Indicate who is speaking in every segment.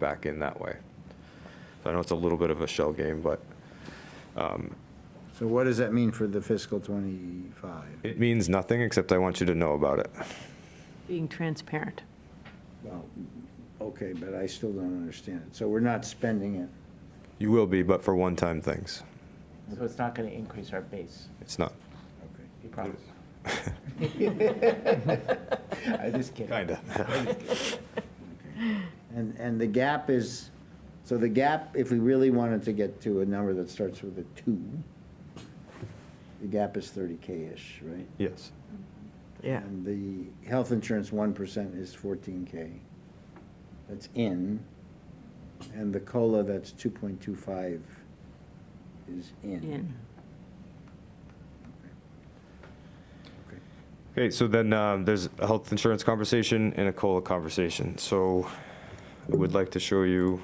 Speaker 1: back in that way. So I know it's a little bit of a shell game, but um,
Speaker 2: So what does that mean for the fiscal '25?
Speaker 1: it means nothing, except I want you to know about it.
Speaker 3: being transparent.
Speaker 2: Well, okay, but I still don't understand it. So we're not spending it.
Speaker 1: You will be, but for one-time things.
Speaker 4: So it's not going to increase our base,
Speaker 1: It's not.
Speaker 2: Okay.
Speaker 4: you promise? I'm just kidding.
Speaker 1: Kinda.
Speaker 2: And, and the gap is, so the gap, if we really wanted to get to a number that starts with a two, the gap is 30K-ish, right?
Speaker 1: Yes.
Speaker 3: Yeah.
Speaker 2: And the health insurance 1% is 14K. That's in. And the COLA, that's 2.25 is
Speaker 3: In.
Speaker 2: Okay.
Speaker 1: Okay, so then um, there's a health insurance conversation and a COLA conversation. So I would like to show you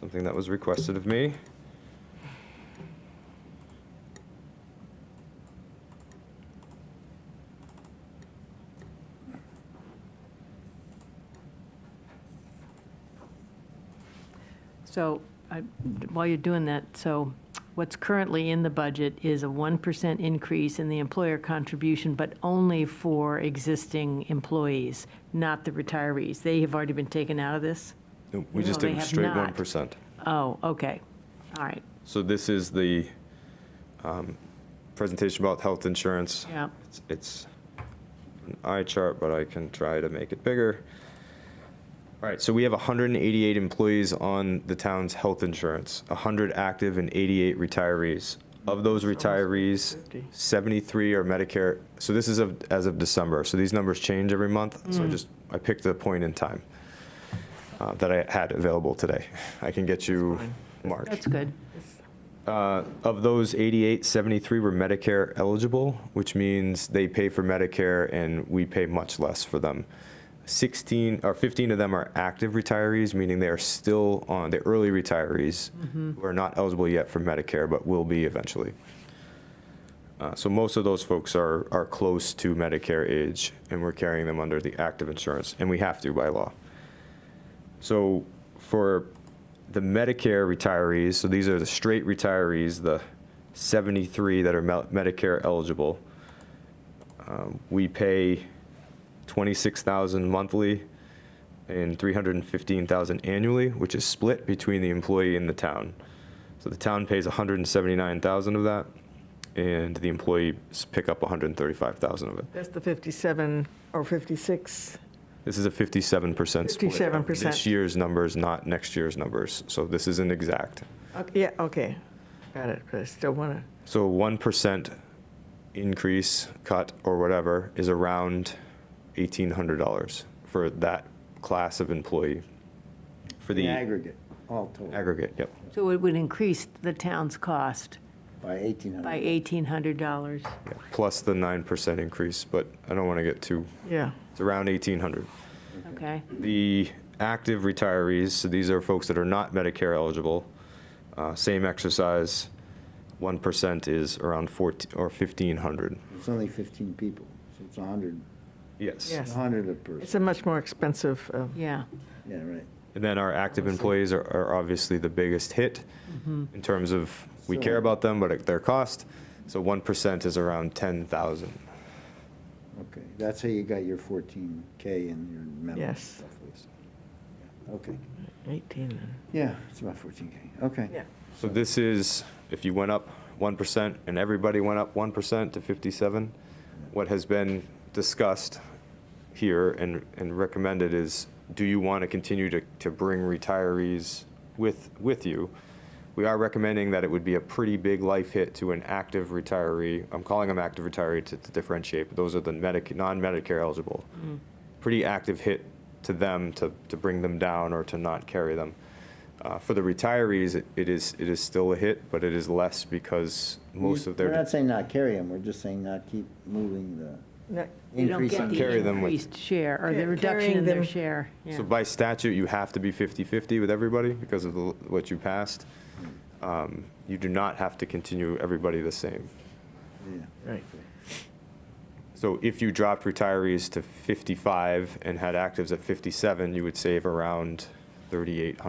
Speaker 1: something that was requested of me.
Speaker 3: So I- while you're doing that, so what's currently in the budget is a 1% increase in the employer contribution, but only for existing employees, not the retirees. They have already been taken out of this?
Speaker 1: No, We just
Speaker 3: No, they
Speaker 1: did
Speaker 3: have
Speaker 1: straight
Speaker 3: not.
Speaker 1: 1%.
Speaker 3: Oh, okay. All right.
Speaker 1: So this is the um, presentation about health insurance.
Speaker 3: Yeah.
Speaker 1: It's- It's an eye chart, but I can try to make it bigger. All right, so we have 188 employees on the town's health insurance, 100 active and 88 retirees. Of those retirees, 73 are Medicare, so this is of- as of December, so these numbers change every month. So I just, I picked a point in time uh, that I had available today. I can get you March.
Speaker 3: That's good.
Speaker 1: Uh, Of those 88, 73 were Medicare eligible, which means they pay for Medicare and we pay much less for them. 16, or 15 of them are active retirees, meaning they are still on, the early retirees who are not eligible yet for Medicare, but will be eventually. Uh, So most of those folks are, are close to Medicare age and we're carrying them under the active insurance, and we have to by law. So for the Medicare retirees, so these are the straight retirees, the 73 that are Mel- Medicare eligible, um, we pay 26,000 monthly and 315,000 annually, which is split between the employee and the town. So the town pays 179,000 of that, and the employees pick up 135,000 of it.
Speaker 5: That's the 57 or 56.
Speaker 1: This is a 57% split.
Speaker 5: 57%.
Speaker 1: This year's numbers, not next year's numbers. So this isn't exact.
Speaker 5: Okay, Yeah, okay, got it, but I still want to,
Speaker 1: So 1% increase, cut, or whatever is around $1,800 for that class of employee. For
Speaker 2: In
Speaker 1: the
Speaker 2: aggregate, all total,
Speaker 1: aggregate, yep.
Speaker 3: So it would increase the town's cost
Speaker 2: by
Speaker 3: by
Speaker 2: 1,800.
Speaker 3: $1,800.
Speaker 1: yeah, Plus the 9% increase, but I don't want to get too,
Speaker 5: yeah.
Speaker 1: it's around 1,800.
Speaker 3: Okay?
Speaker 1: The active retirees, so these are folks that are not Medicare eligible, uh, same exercise, 1% is around 14, or 1,500.
Speaker 2: It's only 15 people, so it's 100,
Speaker 1: Yes.
Speaker 5: Yes.
Speaker 2: 100 a
Speaker 5: It's
Speaker 2: person.
Speaker 5: a much more expensive, uh,
Speaker 3: Yeah.
Speaker 2: Yeah, right.
Speaker 1: And then our active employees are, are obviously the biggest hit in terms of, we care
Speaker 2: So-
Speaker 1: about them, but at their cost. So 1% is around 10,000.
Speaker 2: Okay, that's how you got your 14K and your medical
Speaker 5: Yes.
Speaker 2: stuff. was- yeah, Okay,
Speaker 5: 18. then.
Speaker 2: yeah, it's about 14K, okay.
Speaker 1: So this is, if you went up 1% and everybody went up 1% to 57, what has been discussed here and, and recommended is, do you want to continue to, to bring retirees with, with you? We are recommending that it would be a pretty big life hit to an active retiree. I'm calling them active retiree to to differentiate, but those are the medic, non-Medicare eligible. Pretty active hit to them to, to bring them down or to not carry them. Uh, For the retirees, it- it is, it is still a hit, but it is less because most of
Speaker 2: We're
Speaker 1: their,
Speaker 2: not saying not carry them, we're just saying not keep moving the
Speaker 5: No,
Speaker 3: You don't
Speaker 2: increase.
Speaker 3: get
Speaker 2: in-
Speaker 3: the
Speaker 1: Carry them with-
Speaker 3: increased share or the
Speaker 5: Ca-
Speaker 3: reduction
Speaker 5: carrying
Speaker 3: in their
Speaker 5: them.
Speaker 3: share. Yeah.
Speaker 1: so by statute, you have to be 50/50 with everybody because of the- what you passed. Um, You do not have to continue everybody the same.
Speaker 2: yeah.
Speaker 5: Right.
Speaker 1: So if you dropped retirees to 55 and had actives at 57, you would save around 3,800